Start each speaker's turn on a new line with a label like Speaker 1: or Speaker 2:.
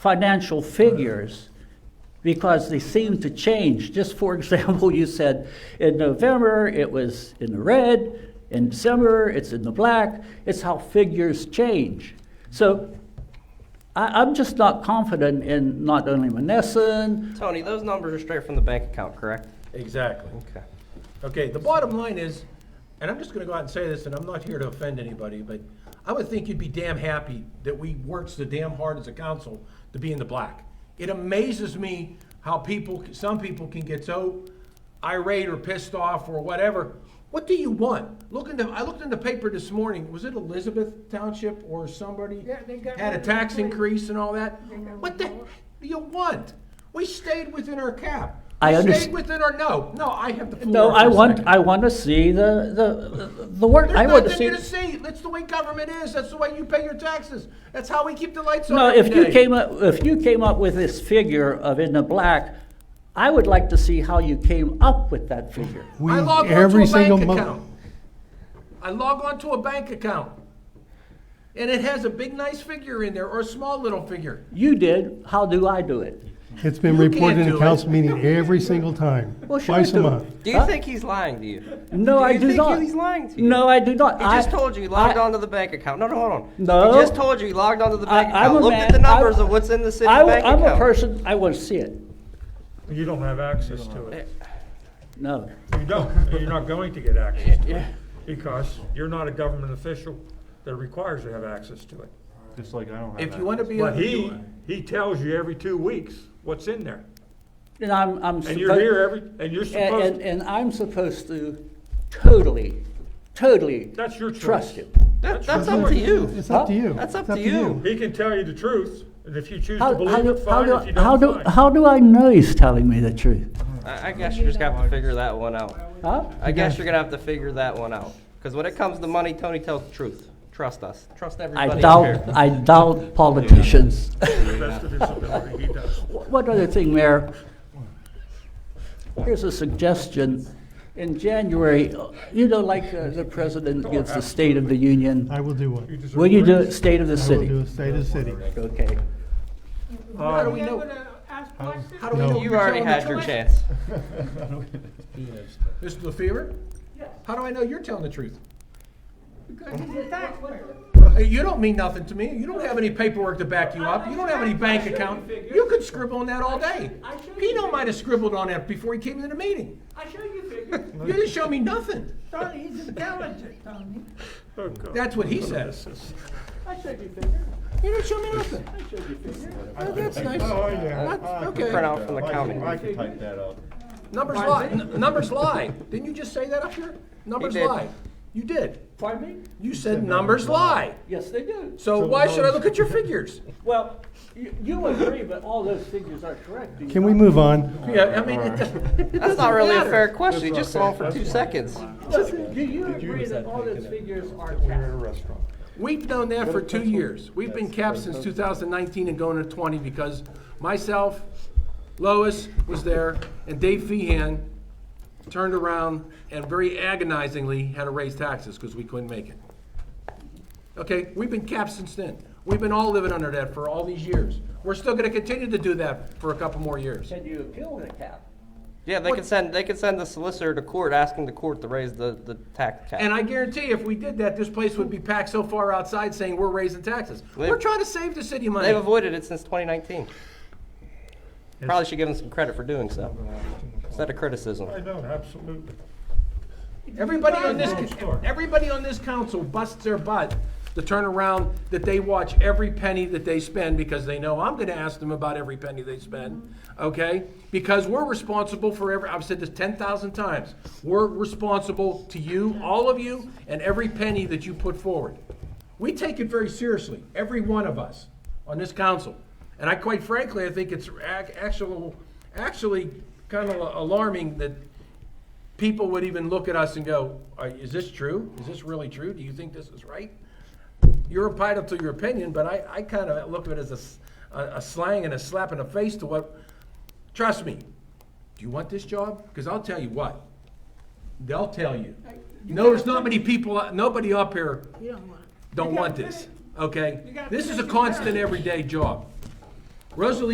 Speaker 1: financial figures because they seem to change. Just for example, you said in November it was in the red, in December it's in the black. It's how figures change. So I, I'm just not confident in not only Monessen,
Speaker 2: Tony, those numbers are straight from the bank account, correct?
Speaker 3: Exactly.
Speaker 2: Okay.
Speaker 3: Okay, the bottom line is, and I'm just gonna go out and say this, and I'm not here to offend anybody, but I would think you'd be damn happy that we worked so damn hard as a council to be in the black. It amazes me how people, some people can get so irate or pissed off or whatever. What do you want? Look in the, I looked in the paper this morning, was it Elizabeth Township or somebody?
Speaker 4: Yeah, they got
Speaker 3: Had a
Speaker 4: rid of
Speaker 3: tax
Speaker 4: the-
Speaker 3: increase and all that?
Speaker 4: got
Speaker 3: What the
Speaker 4: rid of
Speaker 3: heck
Speaker 4: all-
Speaker 3: do you want? We stayed within our cap.
Speaker 1: I
Speaker 3: We
Speaker 1: underst-
Speaker 3: Stayed within our, no, no, I have the floor.
Speaker 1: no,
Speaker 3: for a
Speaker 1: I want
Speaker 3: second.
Speaker 1: I want to see the the the work. I
Speaker 3: There's
Speaker 1: want to
Speaker 3: nothing
Speaker 1: see.
Speaker 3: to see. That's the way government is. That's the way you pay your taxes. That's how we keep the lights on.
Speaker 1: No, if
Speaker 3: every
Speaker 1: you
Speaker 3: day.
Speaker 1: came up, if you came up with this figure of in the black, I would like to see how you came up with that figure.
Speaker 5: We,
Speaker 3: I log
Speaker 5: every
Speaker 3: on to a
Speaker 5: single
Speaker 3: bank
Speaker 5: month.
Speaker 3: account. I log on to a bank account. And it has a big nice figure in there or a small little figure.
Speaker 1: You did, how do I do it?
Speaker 5: It's been
Speaker 3: You can't
Speaker 5: reported in
Speaker 3: do
Speaker 5: a
Speaker 3: it.
Speaker 5: council meeting every single time,
Speaker 1: Well, should I
Speaker 5: twice a
Speaker 1: do it?
Speaker 5: month.
Speaker 2: Do you
Speaker 1: Huh?
Speaker 2: think he's lying to you?
Speaker 1: No,
Speaker 2: Do
Speaker 1: I
Speaker 2: you
Speaker 1: do
Speaker 2: think
Speaker 1: not.
Speaker 2: he's lying to you?
Speaker 1: No, I do not.
Speaker 2: He just
Speaker 1: I-
Speaker 2: told you he logged
Speaker 1: I-
Speaker 2: onto the bank account. No, no, hold on.
Speaker 1: No.
Speaker 2: He just told you he logged onto the
Speaker 1: I- I'm
Speaker 2: bank
Speaker 1: a
Speaker 2: account. Looked
Speaker 1: man-
Speaker 2: at the numbers
Speaker 1: I-
Speaker 2: of what's in the city
Speaker 1: I,
Speaker 2: bank
Speaker 1: am
Speaker 2: account.
Speaker 1: a person, I want to see it.
Speaker 6: You don't have access to it.
Speaker 1: No,
Speaker 6: You don't, and you're not going to get access to it, because you're not a government official that requires you to have access to it.
Speaker 7: Just like I don't have
Speaker 3: If you want to be
Speaker 6: But
Speaker 3: a
Speaker 6: he, he tells you every two weeks what's in there,
Speaker 1: and I'm, I'm.
Speaker 6: and you're
Speaker 1: suppo-
Speaker 6: here every, and you're
Speaker 1: And,
Speaker 6: supposed,
Speaker 1: and- and I'm supposed to totally, totally
Speaker 6: that's your choice.
Speaker 1: trust you.
Speaker 2: That-
Speaker 6: That's
Speaker 2: that's
Speaker 6: your
Speaker 2: up to
Speaker 6: choice.
Speaker 2: you.
Speaker 5: It's up to
Speaker 1: Huh?
Speaker 5: you.
Speaker 2: That's up
Speaker 5: It's
Speaker 2: to you.
Speaker 6: He can tell you the truth, and if you choose
Speaker 1: How-
Speaker 6: to
Speaker 1: how
Speaker 6: believe
Speaker 1: do-
Speaker 6: it,
Speaker 1: how
Speaker 6: fine,
Speaker 1: do-
Speaker 6: if you
Speaker 1: how do-
Speaker 6: don't, fine.
Speaker 1: How do I know he's telling me the truth?
Speaker 2: I, I guess you just have to figure that one out.
Speaker 1: Huh?
Speaker 2: I guess you're gonna have to figure that one out. Because when it comes to money, Tony tells the truth. Trust us. Trust
Speaker 1: I
Speaker 2: everybody.
Speaker 1: doubt, I doubt politicians.
Speaker 6: To the best of his ability, he does.
Speaker 1: One other thing, Mayor. Here's a suggestion. In January, you know, like uh, the president gives the State of the Union,
Speaker 5: I will do one.
Speaker 6: You deserve
Speaker 1: will you do
Speaker 6: praise.
Speaker 1: it State of the
Speaker 5: I will do
Speaker 1: City?
Speaker 5: a state of the city.
Speaker 1: Okay.
Speaker 3: How do we
Speaker 4: Be able
Speaker 3: know?
Speaker 4: to ask questions?
Speaker 3: How do we
Speaker 5: No.
Speaker 3: know?
Speaker 2: You
Speaker 3: you're
Speaker 2: already
Speaker 3: telling the
Speaker 2: had your
Speaker 3: truth?
Speaker 2: chance.
Speaker 3: Mr. LaFever,
Speaker 4: Yes,
Speaker 3: how do I know you're telling the truth?
Speaker 4: because he's a taxpayer.
Speaker 3: Hey, You don't mean nothing to me. You don't have any paperwork to back you up. You don't have any bank account. You could scribble on that all day.
Speaker 4: I showed you
Speaker 3: Pino
Speaker 4: figures.
Speaker 3: might have scribbled on that before he came to the meeting.
Speaker 4: I show you figures.
Speaker 3: You didn't show me nothing.
Speaker 4: Tony, he's intelligent, Tony.
Speaker 6: Oh, God.
Speaker 3: That's what he says.
Speaker 4: I show you figures.
Speaker 3: You didn't show me nothing.
Speaker 4: I show you figures.
Speaker 3: Oh, that's nice.
Speaker 7: Oh, yeah.
Speaker 3: That's-
Speaker 7: I can
Speaker 3: okay.
Speaker 7: print
Speaker 2: Print out from the
Speaker 7: that. I can-
Speaker 2: county.
Speaker 7: I can type that up.
Speaker 3: Numbers lie. N- Numbers lie. Didn't you just say that up here? Numbers
Speaker 2: did.
Speaker 3: lie. You did.
Speaker 1: Pardon me?
Speaker 3: You said numbers lie.
Speaker 1: Yes, they do.
Speaker 3: So why should I look at your figures?
Speaker 1: Well, you you agree, but all those figures are correct. do you
Speaker 5: Can
Speaker 1: not?
Speaker 5: we move on?
Speaker 3: Yeah, I mean, it doesn't.
Speaker 2: That's not really a
Speaker 3: matter.
Speaker 2: fair question. You just saw him for two seconds.
Speaker 1: Listen, Do you agree that all those figures are correct?
Speaker 7: restaurant.
Speaker 3: We've known that for two years. We've been capped since 2019 and going to 20 because myself, Lois was there, and Dave Feehan turned around and very agonizingly had to raise taxes because we couldn't make it. Okay, we've been capped since then. We've been all living under that for all these years. We're still gonna continue to do that for a couple more years.
Speaker 1: Can you appeal the cap?
Speaker 2: Yeah, they can send, they can send the solicitor to court, asking the court to raise the, the tax cap.
Speaker 3: And I guarantee if we did that, this place would be packed so far outside saying we're raising taxes. We're trying to save the city money.
Speaker 2: They've avoided it since 2019. Probably should give them some credit for doing so. Instead of criticism.
Speaker 6: I know, absolutely.
Speaker 3: Everybody on this,
Speaker 6: Sure.
Speaker 3: everybody on this council busts their butt to turn around that they watch every penny that they spend because they know I'm gonna ask them about every penny they spend, okay? Because we're responsible for every, I've said this ten thousand times, we're responsible to you, all of you, and every penny that you put forward. We take it very seriously, every one of us on this council. And I, quite frankly, I think it's ac- actual, actually kind of alarming that people would even look at us and go, "Are- is this true? Is this really true? Do you think this is right? You're entitled to your opinion, but I, I kind of look at it as a s- a, a slang and a slap in the face to what, trust me, do you want this job? Because I'll tell you what, they'll tell you. No, there's not many people, uh, nobody up here
Speaker 4: You don't want it.
Speaker 3: don't
Speaker 4: You
Speaker 3: want
Speaker 4: gotta
Speaker 3: this,
Speaker 4: finish-
Speaker 3: okay?
Speaker 4: you gotta
Speaker 3: This is a
Speaker 4: finish it
Speaker 3: constant
Speaker 4: down.
Speaker 3: everyday job. Rosalie